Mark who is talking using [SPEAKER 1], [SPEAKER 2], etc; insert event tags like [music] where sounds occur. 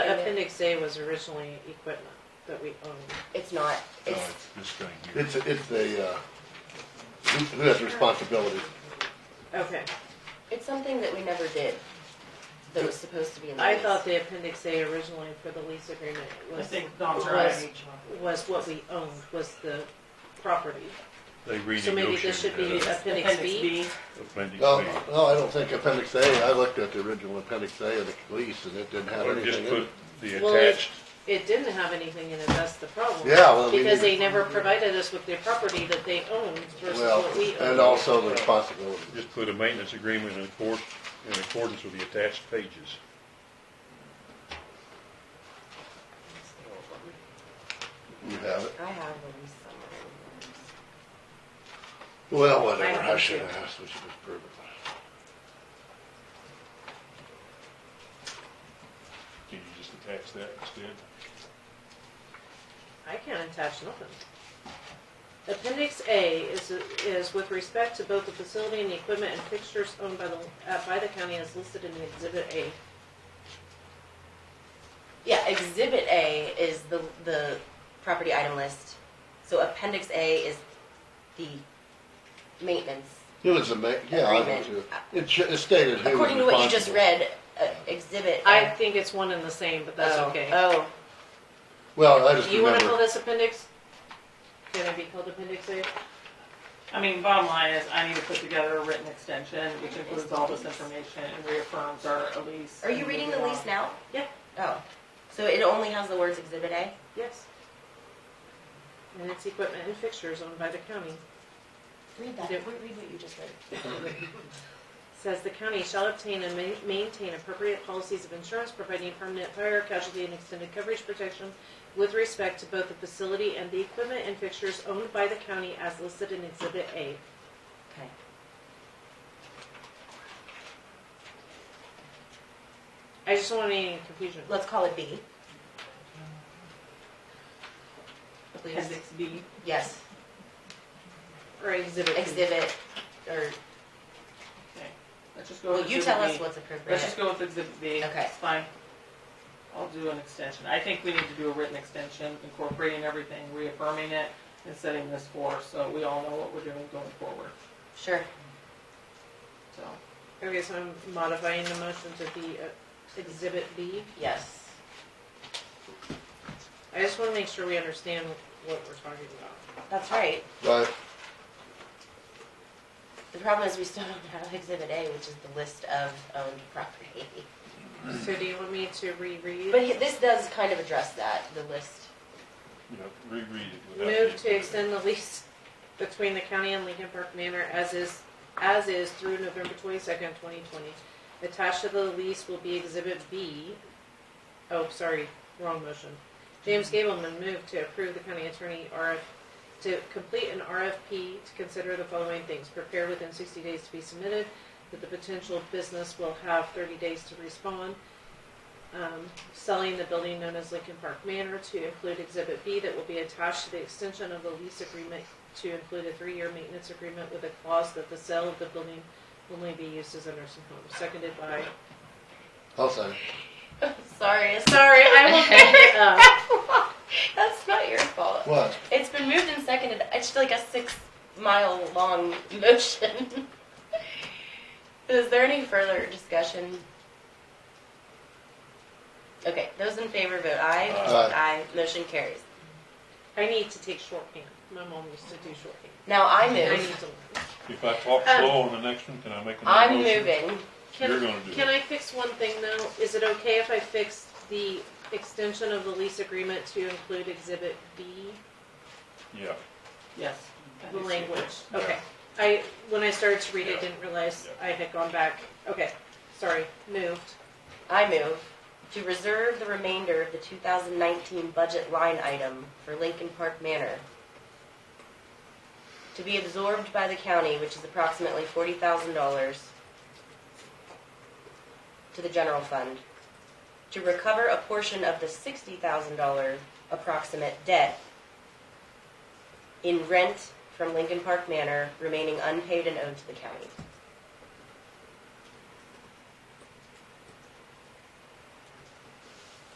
[SPEAKER 1] Appendix A was originally equipment that we owned.
[SPEAKER 2] It's not,
[SPEAKER 3] No,
[SPEAKER 4] Um,
[SPEAKER 2] it's,
[SPEAKER 3] Oh, it's just going here.
[SPEAKER 4] It's, it's the, uh, who who has responsibility?
[SPEAKER 1] Okay,
[SPEAKER 2] it's something that we never did, that was supposed to be in the
[SPEAKER 1] I
[SPEAKER 2] lease.
[SPEAKER 1] thought the Appendix A originally for the lease agreement
[SPEAKER 5] I
[SPEAKER 1] was,
[SPEAKER 5] think Don's
[SPEAKER 1] was,
[SPEAKER 5] right.
[SPEAKER 1] was what we owned, was the property.
[SPEAKER 3] They
[SPEAKER 1] So maybe this should be
[SPEAKER 3] renegotiated that
[SPEAKER 1] Appendix B?
[SPEAKER 3] appendix
[SPEAKER 4] No,
[SPEAKER 3] B.
[SPEAKER 4] no, I don't think appendix A, I looked at the original appendix A of the lease and it didn't have
[SPEAKER 3] Or just
[SPEAKER 4] anything in
[SPEAKER 3] put
[SPEAKER 4] it.
[SPEAKER 3] the
[SPEAKER 1] Well, it-
[SPEAKER 3] attached,
[SPEAKER 1] It didn't have anything in it, that's the problem.
[SPEAKER 4] Yeah, well, we
[SPEAKER 1] Because they
[SPEAKER 4] need,
[SPEAKER 1] never provided us with the property that they owned versus
[SPEAKER 4] well,
[SPEAKER 1] what we
[SPEAKER 4] and
[SPEAKER 1] owned.
[SPEAKER 4] also the responsibility.
[SPEAKER 3] just put a maintenance agreement in accord, in accordance with the attached pages.
[SPEAKER 4] You have it.
[SPEAKER 2] I have the lease somewhere.
[SPEAKER 4] Well, whatever,
[SPEAKER 1] I have
[SPEAKER 4] I
[SPEAKER 1] it
[SPEAKER 4] should
[SPEAKER 1] too.
[SPEAKER 4] have asked, we should just prove it.
[SPEAKER 3] Can you just attach that instead?
[SPEAKER 1] I can't attach nothing. Appendix A is, is with respect to both the facility and the equipment and fixtures owned by the, uh, by the county as listed in Exhibit A.
[SPEAKER 2] Yeah, Exhibit A is the, the property item list, so Appendix A is the maintenance.
[SPEAKER 4] It was a ma, yeah, I know too.
[SPEAKER 2] Agreement.
[SPEAKER 4] It should, it stated who was
[SPEAKER 2] According to what you just
[SPEAKER 4] responsible.
[SPEAKER 2] read, uh, Exhibit.
[SPEAKER 1] I
[SPEAKER 2] A-
[SPEAKER 1] think it's one and the same, but that's
[SPEAKER 2] Oh,
[SPEAKER 1] okay.
[SPEAKER 2] Oh,
[SPEAKER 4] Well, I just
[SPEAKER 1] You wanna call
[SPEAKER 4] remember,
[SPEAKER 1] this appendix? Can it be called appendix A?
[SPEAKER 5] I mean, bottom line is, I need to put together a written extension, which includes all this information and reaffirms our lease.
[SPEAKER 2] are you
[SPEAKER 5] and uh,
[SPEAKER 2] reading the
[SPEAKER 5] moving
[SPEAKER 2] lease
[SPEAKER 5] on.
[SPEAKER 2] now?
[SPEAKER 1] Yeah.
[SPEAKER 2] Oh, so it only has the words Exhibit A?
[SPEAKER 1] Yes. And it's equipment and fixtures owned by the county.
[SPEAKER 2] Read that,
[SPEAKER 1] Yeah.
[SPEAKER 2] read read what you just read.
[SPEAKER 1] Says the county shall obtain and ma- maintain appropriate policies of insurance providing permanent fire, casualty, and extended coverage protection with respect to both the facility and the equipment and fixtures owned by the county as listed in Exhibit A.
[SPEAKER 2] Okay.
[SPEAKER 1] I just don't want any confusion.
[SPEAKER 2] Let's call it B. Please,
[SPEAKER 5] Appendix B.
[SPEAKER 2] yes,
[SPEAKER 1] Or Exhibit B.
[SPEAKER 2] exhibit, or,
[SPEAKER 5] Okay. Let's just go
[SPEAKER 2] well,
[SPEAKER 5] with
[SPEAKER 2] you tell us
[SPEAKER 5] Exhibit
[SPEAKER 2] what's
[SPEAKER 5] B. Let's just
[SPEAKER 2] appropriate.
[SPEAKER 5] go with Exhibit B.
[SPEAKER 2] Okay.
[SPEAKER 5] It's fine. I'll do an extension. I think we need to do a written extension, incorporating everything, reaffirming it, and setting this forth, so we all know what we're doing going forward,
[SPEAKER 2] Sure,
[SPEAKER 5] so.
[SPEAKER 1] Okay, so I'm modifying the motion to be uh, Exhibit B.
[SPEAKER 2] yes.
[SPEAKER 1] I just want to make sure we understand what we're talking about.
[SPEAKER 2] That's right.
[SPEAKER 4] but
[SPEAKER 2] The problem is we still don't have exhibit A, which is the list of owned property.
[SPEAKER 1] So do you want me to reread?
[SPEAKER 2] But he- this does kind of address that, the list.
[SPEAKER 3] You know, reread it without.
[SPEAKER 1] Move
[SPEAKER 3] the-
[SPEAKER 1] to extend the lease between the county and Lincoln Park Manor as is, as is through November twenty-second, twenty twenty. Attached to the lease will be exhibit B. Oh, sorry, wrong motion. James Gableman moved to approve the county attorney RF, to complete an RFP to consider the following things. Prepare within sixty days to be submitted, that the potential business will have thirty days to respond um, selling the building known as Lincoln Park Manor to include Exhibit B that will be attached to the extension of the lease agreement to include a three-year maintenance agreement with a clause that the sale of the building will only be used as a nursing home, seconded by,
[SPEAKER 4] I'll say,
[SPEAKER 2] Sorry, it's-
[SPEAKER 1] sorry, [laughs] I
[SPEAKER 2] [laughs]
[SPEAKER 1] will pick it up.
[SPEAKER 2] that's not your fault.
[SPEAKER 4] what?
[SPEAKER 2] It's been moved and seconded. It's like a six mile long [laughs] motion. Is there any further discussion? Okay, those in favor vote aye.
[SPEAKER 4] Aye.
[SPEAKER 2] Motion carries.
[SPEAKER 1] I need to take shorthand. My mom used to do shorthand.
[SPEAKER 2] Now I
[SPEAKER 1] I need
[SPEAKER 2] move.
[SPEAKER 1] to learn.
[SPEAKER 3] If I talk
[SPEAKER 1] Um,
[SPEAKER 3] slow on the next one, can I make another
[SPEAKER 2] I'm
[SPEAKER 3] motion?
[SPEAKER 2] moving.
[SPEAKER 3] You're
[SPEAKER 1] Can,
[SPEAKER 3] gonna do
[SPEAKER 1] can
[SPEAKER 3] it.
[SPEAKER 1] I fix one thing though? Is it okay if I fix the extension of the lease agreement to include Exhibit B,
[SPEAKER 3] Yeah,
[SPEAKER 5] Yes.
[SPEAKER 1] the language?
[SPEAKER 3] Yeah.
[SPEAKER 1] Okay. I, when I started to read
[SPEAKER 3] Yeah.
[SPEAKER 1] it, didn't realize I had gone back. Okay, sorry, moved.
[SPEAKER 2] I move to reserve the remainder of the 2019 budget line item for Lincoln Park Manor to be absorbed by the county, which is approximately $40,000 to the general fund, to recover a portion of the $60,000 approximate debt in rent from Lincoln Park Manor remaining unpaid and owed to the county.